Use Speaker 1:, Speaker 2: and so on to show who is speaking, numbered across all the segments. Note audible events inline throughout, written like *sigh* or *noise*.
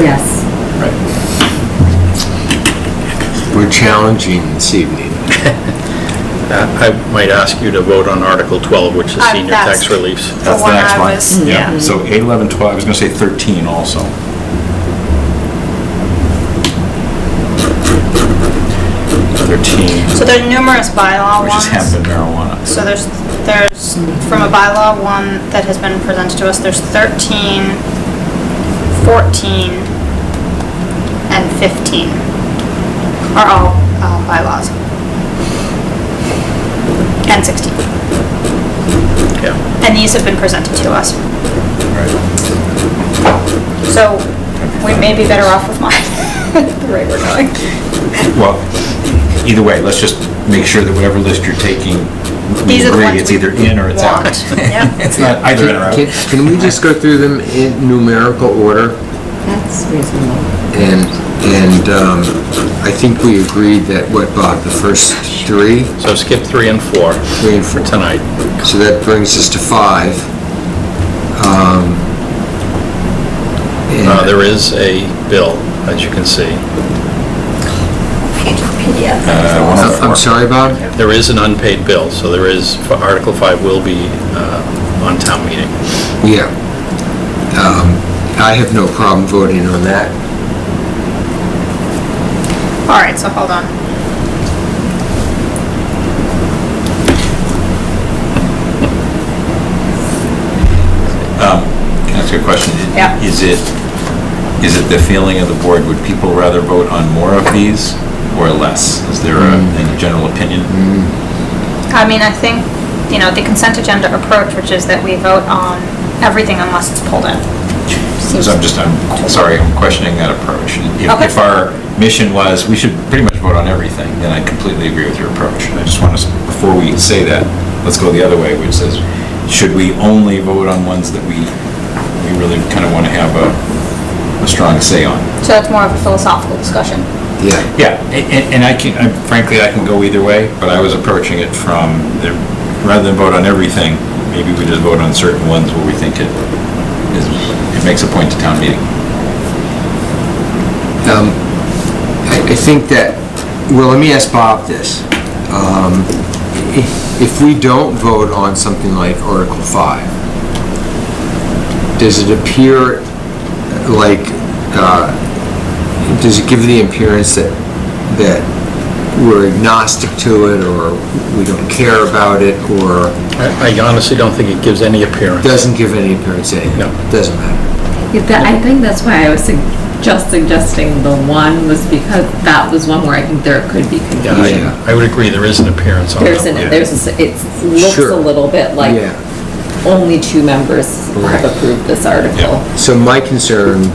Speaker 1: Yes.
Speaker 2: Right.
Speaker 3: We're challenging this evening.
Speaker 2: Uh, I might ask you to vote on Article 12, which is
Speaker 4: Uh,
Speaker 2: senior
Speaker 4: that's-
Speaker 2: tax reliefs.
Speaker 5: That's the
Speaker 4: one
Speaker 5: next
Speaker 4: I
Speaker 5: one.
Speaker 4: was-
Speaker 5: Yeah, so 8, 11, 12, I was going to say 13 also.
Speaker 2: Thirteen.
Speaker 4: So there are numerous bylaw
Speaker 5: Which is hemp
Speaker 4: ones.
Speaker 5: and marijuana.
Speaker 4: So there's, there's, from a bylaw one that has been presented to us, there's 13, 14, and 15 are all uh, bylaws. And 16.
Speaker 2: Yeah.
Speaker 4: And these have been presented to us. So we may be better off with mine, *laughs* the way we're going.
Speaker 5: Well, either way, let's just make sure that whatever list you're taking, we
Speaker 4: These are the
Speaker 5: agree,
Speaker 4: ones
Speaker 5: it's
Speaker 4: we
Speaker 5: either in or it's out.
Speaker 4: want. Yep.
Speaker 5: It's not either in or out.
Speaker 3: Can- Can we just go through them in numerical order?
Speaker 1: That's reasonable.
Speaker 3: And, and um, I think we agreed that, what, Bob, the first three?
Speaker 2: So skip three and four
Speaker 3: Three and
Speaker 2: for
Speaker 3: four.
Speaker 2: tonight.
Speaker 3: So that brings us to five. Um, and-
Speaker 2: Uh, There is a bill, as you can see.
Speaker 5: Uh, one
Speaker 3: I'm
Speaker 5: oh
Speaker 3: I'm
Speaker 5: four.
Speaker 3: sorry, Bob?
Speaker 2: There is an unpaid bill, so there is, Article 5 will be uh, on town meeting.
Speaker 3: Yeah. Um, I have no problem voting on that.
Speaker 4: All right, so hold on.
Speaker 5: Can I ask you a question?
Speaker 4: Yeah.
Speaker 5: Is it, is it the feeling of the board, would people rather vote on more of these or less? Is there a- any general opinion?
Speaker 4: I mean, I think, you know, the consent agenda approach, which is that we vote on everything unless it's pulled in.
Speaker 5: So I'm just, I'm sorry, I'm questioning that approach. If-
Speaker 4: Okay.
Speaker 5: If our mission was, we should pretty much vote on everything, then I completely agree with your approach. I just want to, before we say that, let's go the other way, which says, should we only vote on ones that we, we really kind of want to have a, a strong say on?
Speaker 4: So it's more of a philosophical discussion.
Speaker 3: Yeah.
Speaker 5: Yeah, a- a- and I can, I- frankly, I can go either way, but I was approaching it from, the- rather than vote on everything, maybe we just vote on certain ones where we think it is, it makes a point to town meeting.
Speaker 3: Um, I I think that, well, let me ask Bob this. Um, i- If we don't vote on something like Article 5, does it appear like, uh, does it give the appearance that, that we're agnostic to it, or we don't care about it, or
Speaker 2: I I honestly don't think it gives any appearance.
Speaker 3: doesn't give any appearance to it?
Speaker 2: No.
Speaker 3: Doesn't matter.
Speaker 1: Yeah, that- I think that's why I was sug- just suggesting the one was because that was one where I think there could be
Speaker 2: Yeah,
Speaker 1: confusion.
Speaker 2: I- I would agree, there is an appearance on that.
Speaker 1: There's an,
Speaker 2: one.
Speaker 1: there's, a s- it looks
Speaker 3: Sure.
Speaker 1: a little bit like
Speaker 3: Yeah.
Speaker 1: only two members
Speaker 3: Right.
Speaker 1: have approved this article.
Speaker 5: Yeah.
Speaker 3: So my concern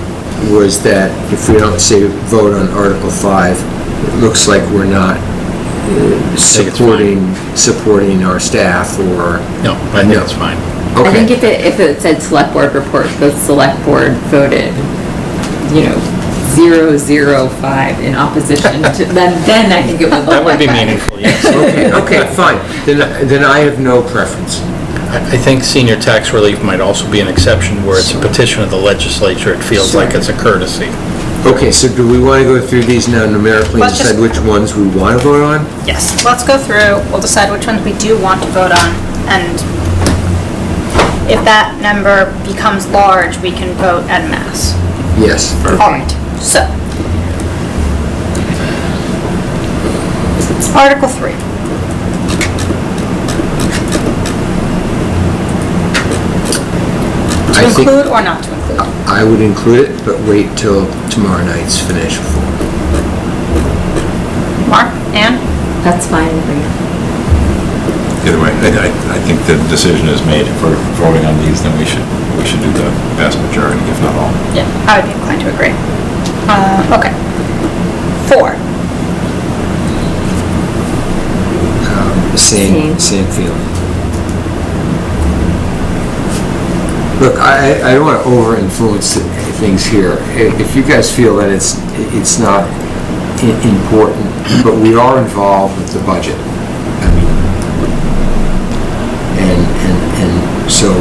Speaker 3: was that if we don't say vote on Article 5, it looks like we're not uh,
Speaker 2: think it's
Speaker 3: supporting, supporting our staff or...
Speaker 2: No, I think it's fine.
Speaker 1: I think
Speaker 3: Okay,
Speaker 1: if it, if it said select board report, the select board voted, you know, zero, zero, five in opposition to, then, then I think it would look like
Speaker 2: That would be
Speaker 1: that.
Speaker 2: meaningful,
Speaker 1: *laughs*
Speaker 2: yes.
Speaker 3: okay, okay, fine. Then, then I have no preference.
Speaker 2: I I think senior tax relief might also be an exception where it's a petition of the legislature. It feels like it's a courtesy.
Speaker 3: Okay, so do we want to go through these now numerically and
Speaker 4: Let's just-
Speaker 3: decide which ones we want to vote on?
Speaker 4: Yes, let's go through, we'll decide which ones we do want to vote on, and if that number becomes large, we can vote en masse.
Speaker 3: Yes.
Speaker 4: All right, so. Article 3. To
Speaker 3: I think-
Speaker 4: include or not to include?
Speaker 3: I would include it, but wait till tomorrow night's financial forum.
Speaker 4: Mark, Ann?
Speaker 1: That's fine with me.
Speaker 5: Either way, I, I- I think the decision is made. If we're voting on these, then we should, we should do the vast majority, if not all.
Speaker 4: Yeah. I would be inclined to agree. Uh, okay. Four.
Speaker 3: Um,
Speaker 1: Same.
Speaker 3: Same, same feeling. Look, I, I I don't want to over-influence th- things here. I- If you guys feel that it's, it's not i- important, but we are involved with the budget. I mean, And, and, and so